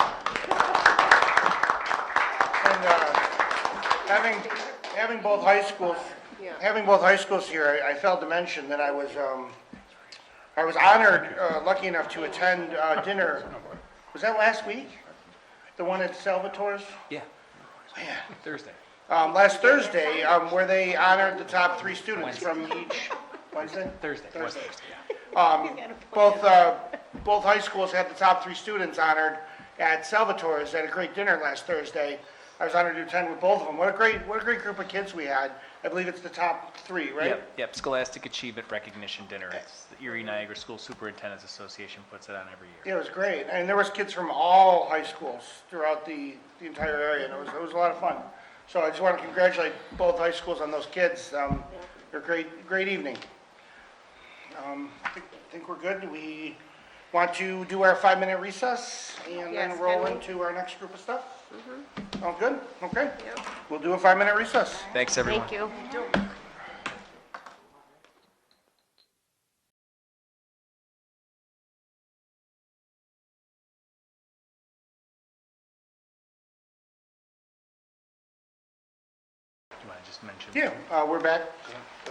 uh, Having, having both high schools, having both high schools here, I I failed to mention that I was, um, I was honored, uh, lucky enough to attend uh, dinner, was that last week? The one at Salvatore's? Oh, Yeah. Thursday. Um, Last Thursday, um, where they honored the top three students from each, Wednesday? Thursday. It was Thursday. Thursday, yeah. Both, uh, both high schools had the top three students honored at Salvatore's at a great dinner last Thursday. I was honored to attend with both of them. What a great, what a great group of kids we had. I believe it's the top three, right? Yep, yep, Scholastic Achievement Recognition Dinner. It's the Erie Niagara School Superintendent's Association puts it on every year. Yeah, it was great. And there was kids from all high schools throughout the, the entire area, and it was, it was a lot of fun. So I just want to congratulate both high schools on those kids. Um, they're great, great evening. Um, I think, think we're good. We want to do our five-minute recess and then Yes, roll can we? Mm-hmm. into our next group of stuff? Sound good? Okay. Yep. We'll do a five-minute recess. Thanks, everyone. Thank you. Do you want to just mention? Yeah, uh, we're back.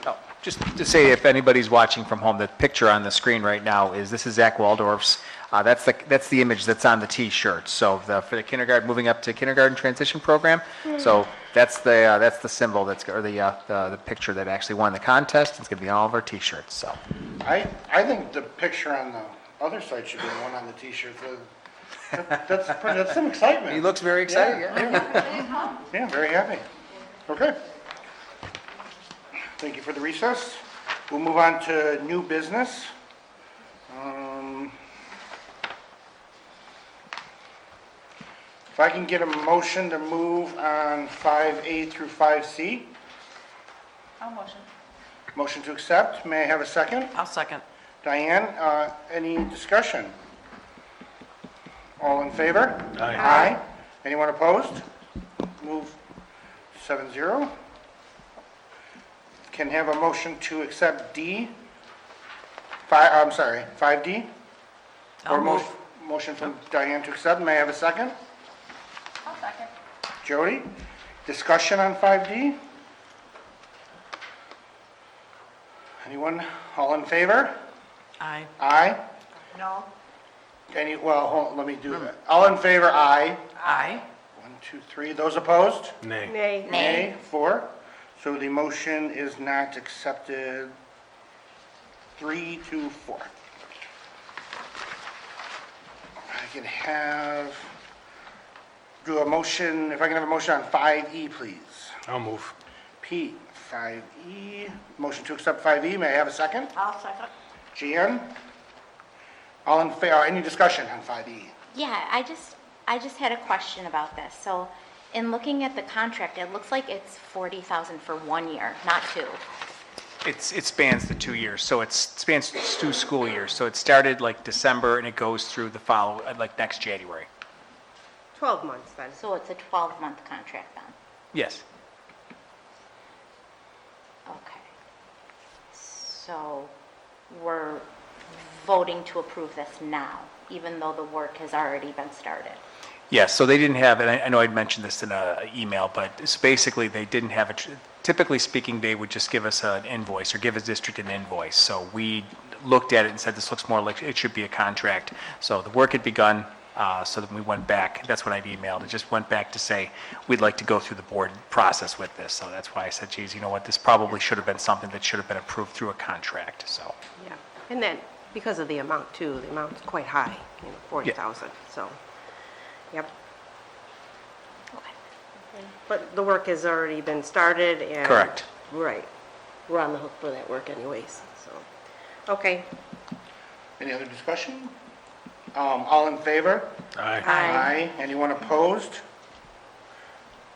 Oh, Just to say, if anybody's watching from home, the picture on the screen right now is, this is Zach Waldorf's, uh, that's the, that's the image that's on the T-shirt. So the, for the kindergarten, moving up to kindergarten transition program, so that's the, uh, that's the symbol that's, or the, uh, the the picture that actually won the contest. It's going to be on all of our T-shirts, so. I, I think the picture on the other side should be the one on the T-shirt. The- That's, that's some excitement. He looks very excited, yeah. Yeah, very happy. Okay. Thank you for the recess. We'll move on to new business. Um, If I can get a motion to move on 5A through 5C. I'll motion. Motion to accept. May I have a second? I'll second. Diane, uh, any discussion? All in favor? Aye. Anyone opposed? Move seven zero. Can have a motion to accept D, five, I'm sorry, five D? I'll move. Motion from Diane to accept, may I have a second? I'll second. Jody, discussion on five D? Anyone, all in favor? Aye. Aye? No. Any, well, hold, let me do that. All in favor, aye. Aye. One, two, three. Those opposed? Nay. Nay. Four. So the motion is not accepted. Three to four. I can have, do a motion, if I can have a motion on five E, please. I'll move. Pete, five E, motion to accept five E, may I have a second? I'll second. Jan? All in fa, uh, any discussion on five E? Yeah, I just, I just had a question about this. So in looking at the contract, it looks like it's 40,000 for one year, not two. It's, it spans the two years, so it's, it spans two school years. So it started like December and it goes through the follow, like next January. 12 months then. So it's a 12-month contract then? Yes. Okay. So we're voting to approve this now, even though the work has already been started? Yes, so they didn't have, and I I know I'd mentioned this in an email, but it's basically, they didn't have, a tr- typically speaking, they would just give us an invoice or give a district an invoice. So we looked at it and said, this looks more like it should be a contract. So the work had begun, uh, so then we went back, that's what I'd emailed, it just went back to say, we'd like to go through the board process with this. So that's why I said, geez, you know what, this probably should have been something that should have been approved through a contract, so. Yeah. And then, because of the amount too, the amount's quite high, you know, 40,000, so, yep. But the work has already been started and. Correct. Right. We're on the hook for that work anyways, so. Okay. Any other discussion? Um, all in favor? Aye. Aye. Anyone opposed?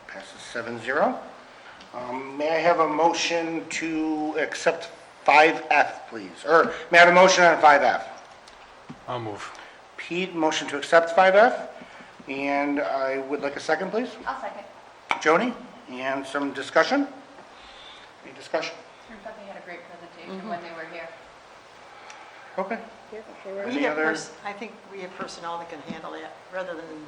Passes seven zero. Um, may I have a motion to accept five F, please? Or may I have a motion on five F? I'll move. Pete, motion to accept five F? And I would like a second, please. I'll second. Joni, and some discussion? Any discussion? Turns out they had a great presentation when they were here. Okay. Yeah, okay, right. Any We have other- pers- I think we have personnel that can handle that, rather than